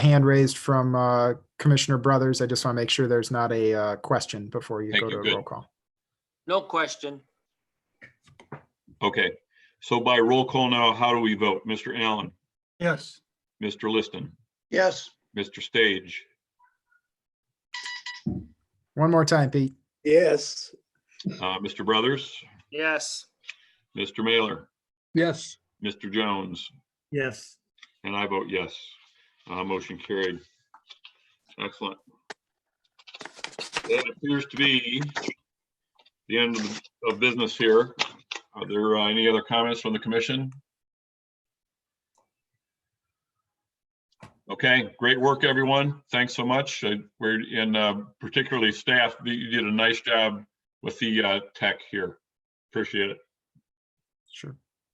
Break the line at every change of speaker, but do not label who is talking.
hand raised from uh, Commissioner Brothers. I just want to make sure there's not a uh, question before you
Thank
go
you.
to a
Good.
roll call.
No question.
Okay, so by roll call now, how do we vote? Mr. Allen,
Yes.
Mr. Liston,
Yes.
Mr. Stage,
One more time, Pete.
Yes.
uh, Mr. Brothers,
Yes.
Mr. Mailer,
Yes.
Mr. Jones,
Yes.
and I vote yes. Uh, Motion carried. Excellent. That appears to be the end of the- of business here. Are there uh, any other comments from the commission? Okay, great work, everyone. Thanks so much. Uh, We're, and uh, particularly staff, you- you did a nice job with the uh, tech here. Appreciate it.
Sure.